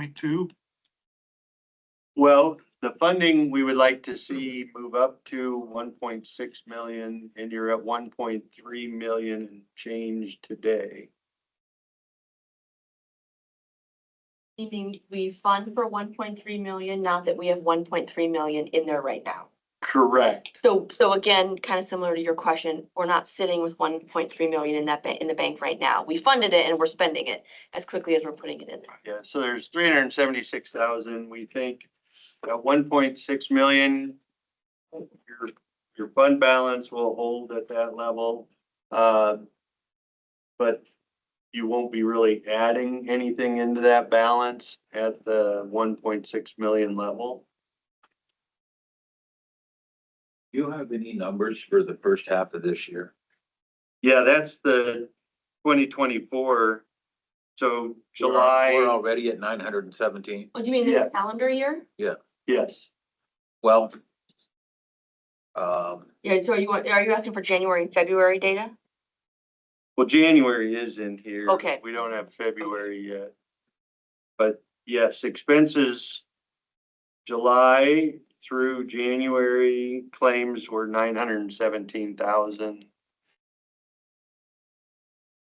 point two? Well, the funding we would like to see move up to one point six million and you're at one point three million and change today. Meaning we fund for one point three million, not that we have one point three million in there right now. Correct. So, so again, kind of similar to your question, we're not sitting with one point three million in that, ba- in the bank right now. We funded it and we're spending it as quickly as we're putting it in there. Yeah, so there's three hundred and seventy-six thousand, we think, at one point six million. Your, your fund balance will hold at that level. uh, But you won't be really adding anything into that balance at the one point six million level. Do you have any numbers for the first half of this year? Yeah, that's the twenty twenty-four. So We're al- We're July, already at nine hundred and seventeen. Oh, do you mean Yeah. the calendar year? yes, Well, um, Yeah, so are you, want- are you asking for January and February data? well, January is in here. Okay. We don't have February yet. But yes, expenses, July through January claims were nine hundred and seventeen thousand.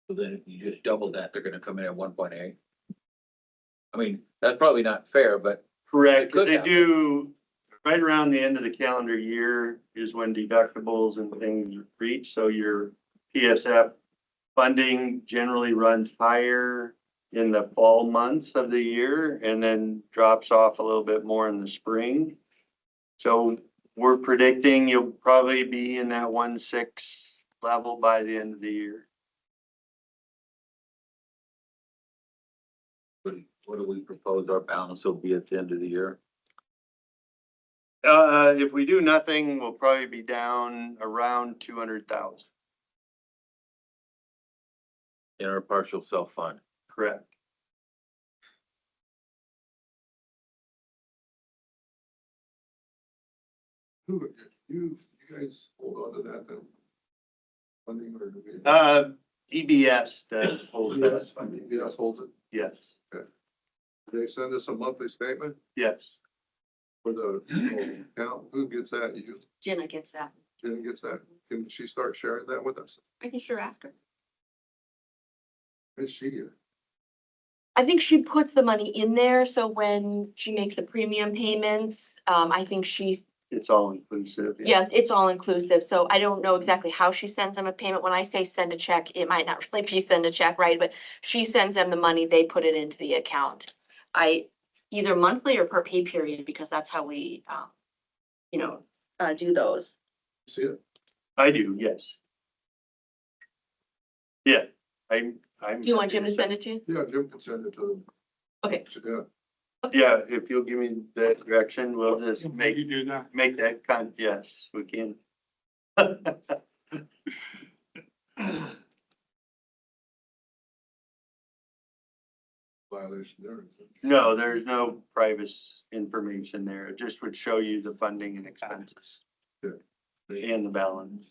then if you just double that, they're gonna come in at one point eight. I mean, that's probably not fair, but Correct, 'cause Good they now. do, right around the end of the calendar year is when deductibles and things reach, so your PSF funding generally runs higher in the fall months of the year and then drops off a little bit more in the spring. So we're predicting you'll probably be in that one six level by the end of the year. what what do we propose our balance will be at the end of the year? Uh, if we do nothing, we'll probably be down around two hundred thousand, In our partial self-fund? correct? Who, you, you guys hold on to that then? Funding or? do we- Uh, EBS does hold Yes, us, funding, yes, holds it. yes, They send us a monthly statement yes. for the account. Who gets that? You, Jenna gets that. Jen gets that? Can she start sharing that with us? I can sure ask her. Is she? I think she puts the money in there, so when she makes the premium payments, um, I think she's, It's all inclusive. yeah, it's all inclusive, so I don't know exactly how she sends them a payment. When I say send a check, it might not really be send a check, right? But she sends them the money, they put it into the account. I, either monthly or per pay period, because that's how we, um, you know, uh, do those. See it? I do, yes. Yeah, I'm, I'm. Do you want Jim to send it to you? Yeah, Jim can send it to them. Okay. She- Yeah, Yeah, if you'll give me that direction, we'll just Can make, You do that. make that con, yes, we can. violation there. No, there's no private information there. It just would show you the funding and expenses. Sure. And the balance.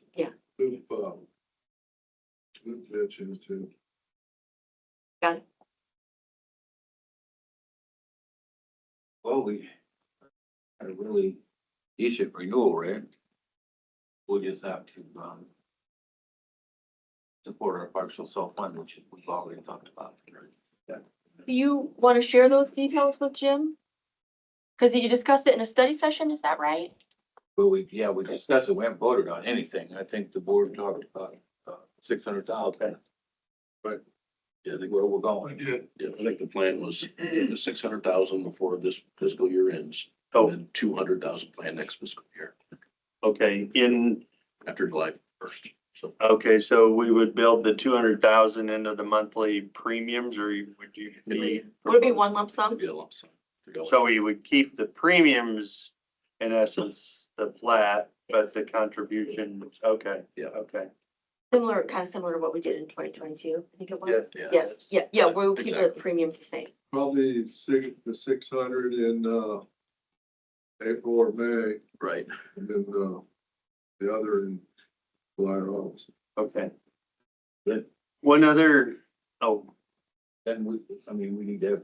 Move, um, move that into Got it? Well, we had a really decent renewal rate. We'll just have to, um, support our partial self-fund, which we've already talked about. Do you want to share those details with Jim? Because you discussed it in a study session, is that right? But we, yeah, we discussed it, we haven't voted on anything, I think the board talked about, uh, six hundred thousand. Right. Yeah, I think where we're going. Yeah, I think the plan was six hundred thousand before this fiscal year ends, Oh, and two hundred thousand plan next fiscal year, okay, in after July first, so. Okay, so we would build the two hundred thousand into the monthly premiums or you- would you be, Would it be one lump sum? Be a lump sum. to go in. so we would keep the premiums in essence, the flat, but the contribution, okay. Yeah. Okay, Similar, kind of similar to what we did in twenty twenty-two, I think it was. Yeah, Yes, yeah, yeah, we'll keep the Exactly. premiums the same. probably six, the six hundred in, uh, April or May. Right, And then, uh, the other in July or August. okay. Good. One other, oh, Then we, I mean, we need to have